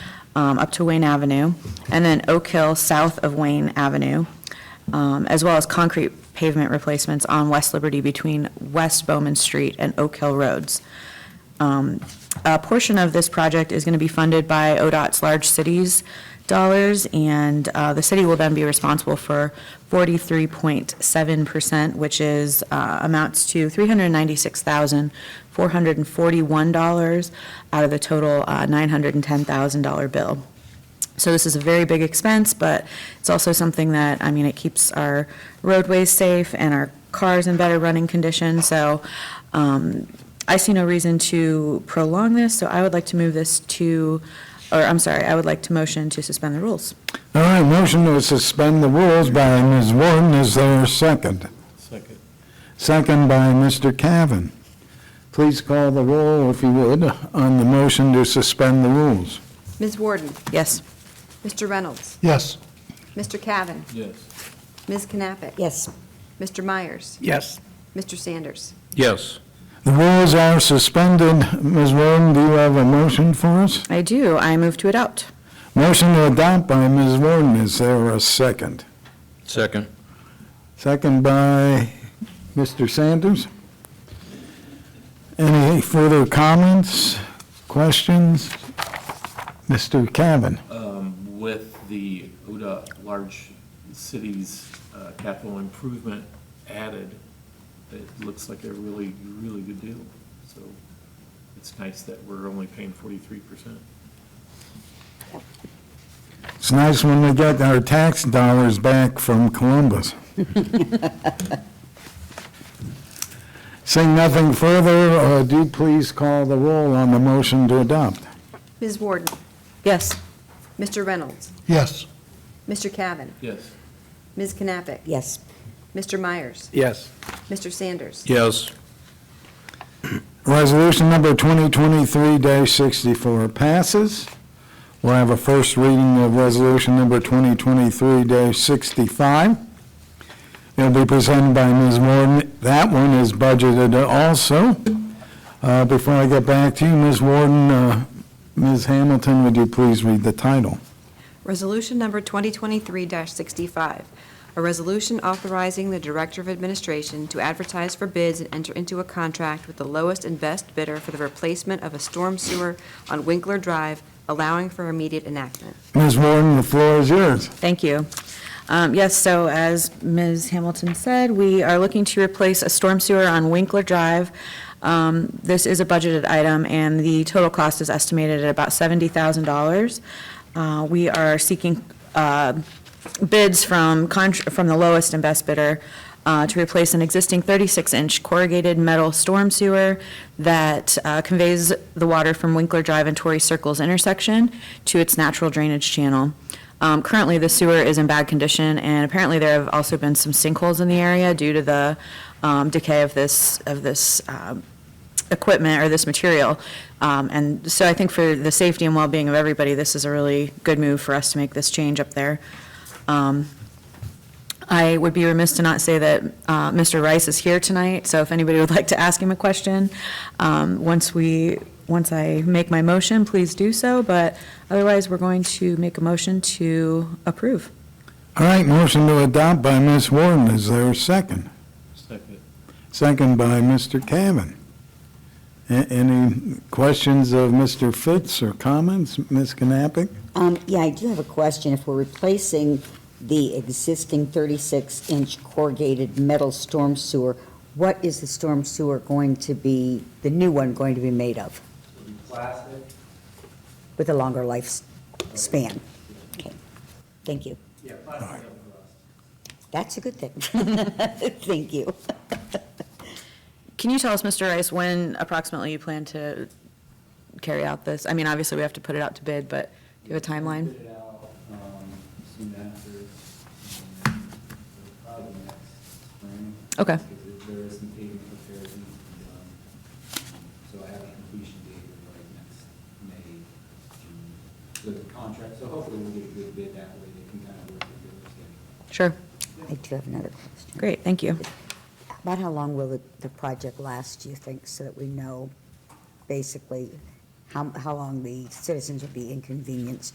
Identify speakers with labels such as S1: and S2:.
S1: um, up to Wayne Avenue, and then Oak Hill south of Wayne Avenue, um, as well as concrete pavement replacements on West Liberty between West Bowman Street and Oak Hill Roads. Um, A portion of this project is going to be funded by ODOT's Large Cities dollars, and uh, the city will then be responsible for 43.7%, which is, uh, amounts to $396,441 out of the total uh, $910,000 bill. So this is a very big expense, but it's also something that, I mean, it keeps our roadways safe and our cars in better running condition. So um, I see no reason to prolong this, so I would like to move this to, or I'm sorry, I would like to motion to suspend the rules.
S2: All right, motion to suspend the rules by Ms. Warden, is there a second?
S3: Second.
S2: Second by Mr. Cavan. Please call the roll, if you would, on the motion to suspend the rules.
S4: Ms. Warden,
S1: Yes,
S4: Mr. Reynolds,
S2: Yes.
S4: Mr. Cavan,
S3: Yes.
S4: Ms. Knappich. Yes. Mr. Myers,
S3: Yes.
S4: Mr. Sanders.
S3: Yes.
S2: The rules are suspended. Ms. Warden, do you have a motion for us?
S1: I do. I move to adopt.
S2: Motion to adopt by Ms. Warden, is there a second?
S3: Second.
S2: Second by Mr. Sanders. Any further comments, questions? Mr. Cavan?
S5: Um, with the ODA large cities uh, capital improvement added, it looks like a really, really good deal. So it's nice that we're only paying forty-three percent.
S2: It's nice when we get our tax dollars back from Columbus. Seeing nothing further, uh, do please call the roll on the motion to adopt.
S4: Ms. Warden,
S1: Yes,
S4: Mr. Reynolds,
S2: Yes.
S4: Mr. Cavan,
S5: Yes,
S4: Ms. Knappich. Yes. Mr. Myers,
S3: Yes.
S4: Mr. Sanders.
S3: Yes.
S2: Resolution number 2023-64 passes. We'll have a first reading of resolution number 2023-65. It'll be presented by Ms. Warden. That one is budgeted also. Uh, Before I get back to you, Ms. Warden, uh, Ms. Hamilton, would you please read the title?
S4: Resolution number 2023-65, a resolution authorizing the Director of Administration to advertise for bids and enter into a contract with the lowest and best bidder for the replacement of a storm sewer on Winkler Drive, allowing for immediate enactment.
S2: Ms. Warden, the floor is yours.
S1: thank you. Um, Yes, so as Ms. Hamilton said, we are looking to replace a storm sewer on Winkler Drive. Um, This is a budgeted item, and the total cost is estimated at about $70,000. Uh, We are seeking uh, bids from, contr- from the lowest and best bidder uh, to replace an existing 36-inch corrugated metal storm sewer that uh, conveys the water from Winkler Drive and Torrey Circles intersection to its natural drainage channel. Um, Currently, the sewer is in bad condition, and apparently there have also been some sinkholes in the area due to the um, decay of this, of this um, equipment or this material. Um, And so I think for the safety and well-being of everybody, this is a really good move for us to make this change up there. Um, I would be remiss to not say that uh, Mr. Rice is here tonight, so if anybody would like to ask him a question, um, once we, once I make my motion, please do so, but otherwise, we're going to make a motion to approve.
S2: All right, motion to adopt by Ms. Warden. Is there a second?
S5: second.
S2: Second by Mr. Cavan. A- Any questions of Mr. Fitz or comments, Ms. Knappich?
S6: Um, yeah, I do have a question. If we're replacing the existing 36-inch corrugated metal storm sewer, what is the storm sewer going to be, the new one going to be made of,
S7: plastic,
S6: with a longer lifespan? Okay, thank you.
S7: yeah, plastic up for us.
S6: That's a good thing. Thank you.
S1: Can you tell us, Mr. Rice, when approximately you plan to carry out this? I mean, obviously, we have to put it out to bid, but do you have a timeline?
S7: Put it out, um, soon after, um, probably next spring.
S1: Okay.
S7: Because there is some pavement repairs that need to be done. Um, So I have a completion date of like next May, June, with the contract, so hopefully we'll get a good bid that way, they can kind of work it with schedule.
S1: Sure,
S6: I do have another question.
S1: great, thank you.
S6: About how long will the, the project last, do you think, so that we know basically how, how long the citizens will be inconvenienced?